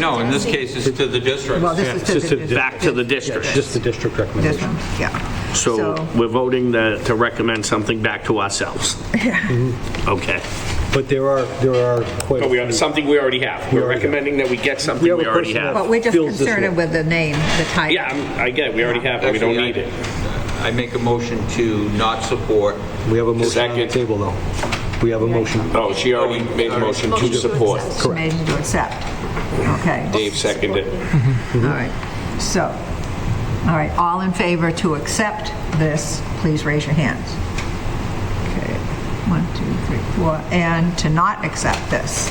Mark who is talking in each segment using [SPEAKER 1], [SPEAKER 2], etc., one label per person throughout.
[SPEAKER 1] No, in this case, it's to the district.
[SPEAKER 2] Well, this
[SPEAKER 3] Yeah,
[SPEAKER 2] is
[SPEAKER 3] it's
[SPEAKER 2] to
[SPEAKER 3] just
[SPEAKER 2] the.
[SPEAKER 3] a-
[SPEAKER 4] Back to the district.
[SPEAKER 3] Just the district
[SPEAKER 2] This
[SPEAKER 3] recommendation.
[SPEAKER 2] one, yeah.
[SPEAKER 4] So we're voting to, to recommend something back to ourselves. Okay.
[SPEAKER 3] But there are, there are quite. a
[SPEAKER 4] But we,
[SPEAKER 3] few-
[SPEAKER 4] are- something we already have. We're
[SPEAKER 3] already have.
[SPEAKER 4] recommending that we get something
[SPEAKER 3] We have
[SPEAKER 4] we
[SPEAKER 3] a
[SPEAKER 4] already
[SPEAKER 3] person
[SPEAKER 4] have.
[SPEAKER 3] that-
[SPEAKER 2] But we're just
[SPEAKER 3] Feels this
[SPEAKER 2] concerned
[SPEAKER 3] way.
[SPEAKER 2] with the name, the title.
[SPEAKER 4] Yeah, I'm- I get it. We already have it. We don't
[SPEAKER 1] Actually, I-
[SPEAKER 4] need it.
[SPEAKER 1] I make a motion to not support.
[SPEAKER 3] We have a motion on the
[SPEAKER 4] Second.
[SPEAKER 3] table, though. We have a motion.
[SPEAKER 4] Oh, she already made a motion to support.
[SPEAKER 2] She made you to accept. Okay.
[SPEAKER 4] Dave seconded.
[SPEAKER 3] Mm-hmm.
[SPEAKER 2] All right, so, all right, all in favor to accept this, please raise your hands. Okay, one, two, three, four, and to not accept this.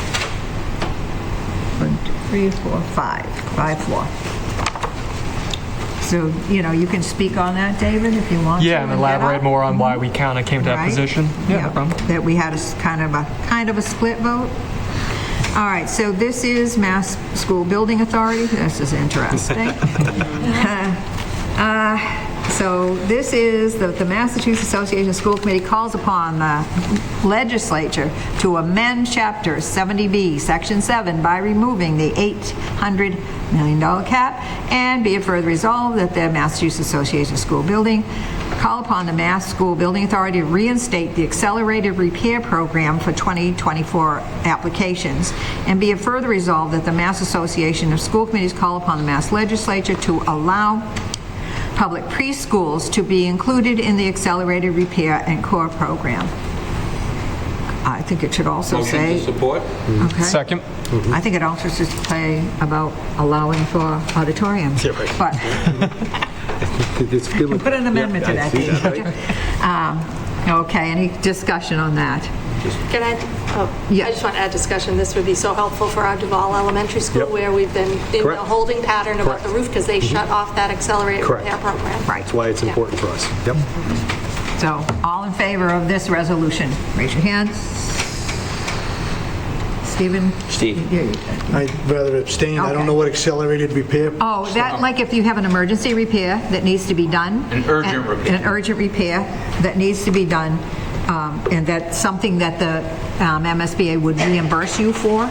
[SPEAKER 2] One, two, three, four, five, five, four. So, you know, you can speak on that, David, if you want to.
[SPEAKER 5] Yeah, and
[SPEAKER 2] get up, Mm-hmm.
[SPEAKER 5] elaborate more on why we kind of came to that
[SPEAKER 2] right?
[SPEAKER 5] position. Yeah, no problem.
[SPEAKER 2] That we had a s- kind of a, kind of a split vote. All right, so this is Mass School Building Authority. This is interesting. Uh, So this is, the the Massachusetts Association of School Committee calls upon the legislature to amend Chapter 70B, Section 7, by removing the $800 million cap, and be it further resolved that the Massachusetts Association of School Building call upon the Mass School Building Authority to reinstate the accelerated repair program for 2024 applications, and be it further resolved that the Mass Association of School Committees call upon the Mass Legislature to allow public preschools to be included in the accelerated repair and core program. I think it should also
[SPEAKER 1] Motion to
[SPEAKER 2] say,
[SPEAKER 1] support?
[SPEAKER 2] okay?
[SPEAKER 5] Second.
[SPEAKER 2] I think it also should say about allowing for auditoriums. But
[SPEAKER 3] It's good with-
[SPEAKER 2] put an amendment to
[SPEAKER 3] Yeah, I
[SPEAKER 2] that.
[SPEAKER 3] see
[SPEAKER 2] Um, Okay, any discussion on that?
[SPEAKER 6] Can I, oh,
[SPEAKER 2] Yeah.
[SPEAKER 6] I just want to add discussion, this would be so helpful for our Duval Elementary School,
[SPEAKER 3] Yep.
[SPEAKER 6] where we've been in a
[SPEAKER 3] Correct.
[SPEAKER 6] holding pattern about
[SPEAKER 3] Correct.
[SPEAKER 6] the
[SPEAKER 3] Mm-hmm.
[SPEAKER 6] roof, because they shut off that accelerated
[SPEAKER 3] Correct.
[SPEAKER 6] repair program.
[SPEAKER 3] That's why it's important for us. Yep.
[SPEAKER 2] So, all in favor of this resolution? Raise your hands. Stephen?
[SPEAKER 4] Steve.
[SPEAKER 2] You-
[SPEAKER 7] I'd rather abstain. I don't know what accelerated repair,
[SPEAKER 2] Oh, that, like if you have an emergency repair that needs to be done.
[SPEAKER 1] An urgent
[SPEAKER 2] and-
[SPEAKER 1] repair.
[SPEAKER 2] An urgent repair that needs to be done, um, and that's something that the um, MSBA would reimburse you for,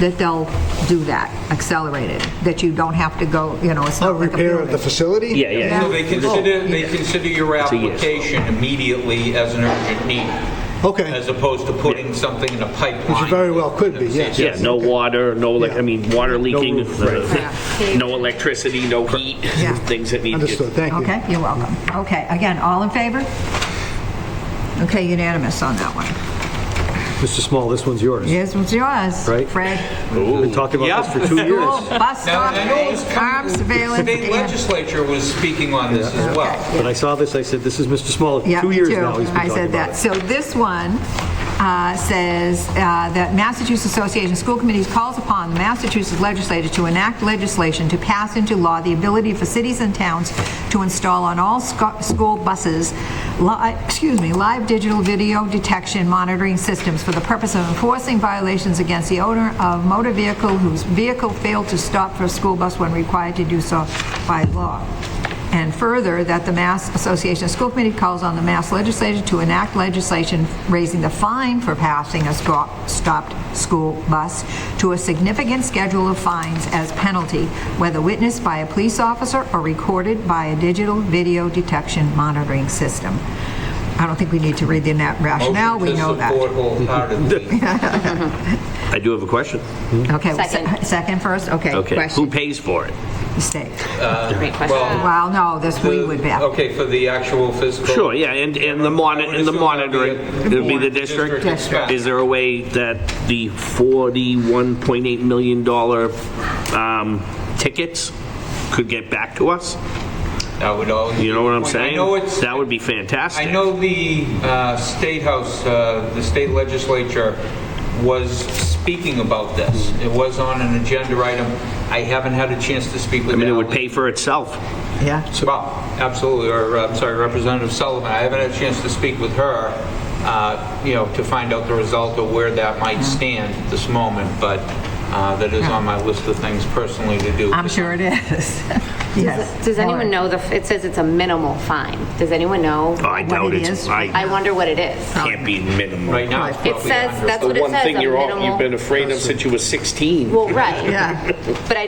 [SPEAKER 2] that they'll do that, accelerated, that you don't have to go, you know, it's
[SPEAKER 7] a
[SPEAKER 2] not like a
[SPEAKER 7] uh, repair of the
[SPEAKER 2] building.
[SPEAKER 7] facility?
[SPEAKER 4] Yeah, yeah.
[SPEAKER 1] So they consider, they consider your
[SPEAKER 4] a yes.
[SPEAKER 1] application immediately as an urgent need.
[SPEAKER 7] Okay.
[SPEAKER 1] As opposed to putting something in a pipeline.
[SPEAKER 7] Which very well could be, yes.
[SPEAKER 4] Yeah, no water, no, elec- I mean, water leaking,
[SPEAKER 3] roof, right.
[SPEAKER 4] uh, no electricity, no heat,
[SPEAKER 2] Yeah.
[SPEAKER 4] things that need to get
[SPEAKER 7] Understood, thank you.
[SPEAKER 2] Okay, you're welcome. Okay, again, all in favor? Okay, unanimous on that one.
[SPEAKER 3] Mr. Small, this one's yours.
[SPEAKER 2] Yes, it's yours.
[SPEAKER 3] Right.
[SPEAKER 2] Fred.
[SPEAKER 3] We've been talking about this for two
[SPEAKER 2] School,
[SPEAKER 3] years,
[SPEAKER 2] bus
[SPEAKER 1] Now,
[SPEAKER 2] stop,
[SPEAKER 1] and I know it's coming-
[SPEAKER 2] armed surveillance.
[SPEAKER 1] State
[SPEAKER 2] dam.
[SPEAKER 1] legislature was speaking on this as well.
[SPEAKER 2] Okay.
[SPEAKER 3] but I saw this, I said, this is Mr. Small,
[SPEAKER 2] Yeah,
[SPEAKER 3] two years
[SPEAKER 2] too.
[SPEAKER 3] now he's been
[SPEAKER 2] I
[SPEAKER 3] talking
[SPEAKER 2] said that.
[SPEAKER 3] about it.
[SPEAKER 2] So this one uh, says uh, that Massachusetts Association of School Committees calls upon the Massachusetts legislature to enact legislation to pass into law the ability for cities and towns to install on all sco- school buses, li- excuse me, live digital video detection monitoring systems for the purpose of enforcing violations against the owner of motor vehicle whose vehicle failed to stop for a school bus when required to do so by law. And further, that the Mass Association of School Committee calls on the Mass Legislature to enact legislation raising the fine for passing a sco- stopped school bus to a significant schedule of fines as penalty, whether witnessed by a police officer or recorded by a digital video detection monitoring system. I don't think we need to read the na- rationale, we know that.
[SPEAKER 1] Motion to support wholeheartedly.
[SPEAKER 4] I do have a question.
[SPEAKER 2] Okay, well, se- second first, okay,
[SPEAKER 4] Okay, who
[SPEAKER 2] question,
[SPEAKER 4] pays for it?
[SPEAKER 2] state.
[SPEAKER 8] Great question.
[SPEAKER 1] Well,
[SPEAKER 2] Well, no, this we would be.
[SPEAKER 1] Okay, for the actual fiscal.
[SPEAKER 4] Sure, yeah, and, and the monitor, and the monitoring, it would be the district.
[SPEAKER 1] District.
[SPEAKER 4] Is there a way that the $41.8 million dollar, um, tickets could get back to us?
[SPEAKER 1] That would all.
[SPEAKER 4] You know what I'm
[SPEAKER 1] I know
[SPEAKER 4] saying?
[SPEAKER 1] it's.
[SPEAKER 4] That would be fantastic.
[SPEAKER 1] I know the uh, State House, uh, the state legislature was speaking about this.
[SPEAKER 4] Mm-hmm.
[SPEAKER 1] It was on an agenda item. I haven't had a chance to speak with
[SPEAKER 4] I
[SPEAKER 1] Ali.
[SPEAKER 4] mean, it would pay for itself.
[SPEAKER 2] Yeah,
[SPEAKER 1] Well, absolutely, or, uh, I'm sorry, Representative Sullivan. I haven't had a chance to speak with her,
[SPEAKER 4] Mm-hmm.
[SPEAKER 1] uh, you know, to find out the result of where that might stand at this moment, but uh, that is on my list of things personally to do.
[SPEAKER 2] I'm sure it is. Yes.
[SPEAKER 8] Does anyone know the, it says it's a minimal fine. Does anyone know?
[SPEAKER 4] I doubt
[SPEAKER 2] it
[SPEAKER 4] it's,
[SPEAKER 2] is.
[SPEAKER 4] I
[SPEAKER 8] I wonder what it is.
[SPEAKER 4] can't be minimal.
[SPEAKER 1] Right now, it's
[SPEAKER 8] It
[SPEAKER 1] probably
[SPEAKER 8] says
[SPEAKER 1] 100.
[SPEAKER 8] that's what it says, a
[SPEAKER 4] you're all-
[SPEAKER 8] minimal-
[SPEAKER 4] afraid of since you were 16.
[SPEAKER 8] Well, right.
[SPEAKER 2] Yeah.
[SPEAKER 8] But I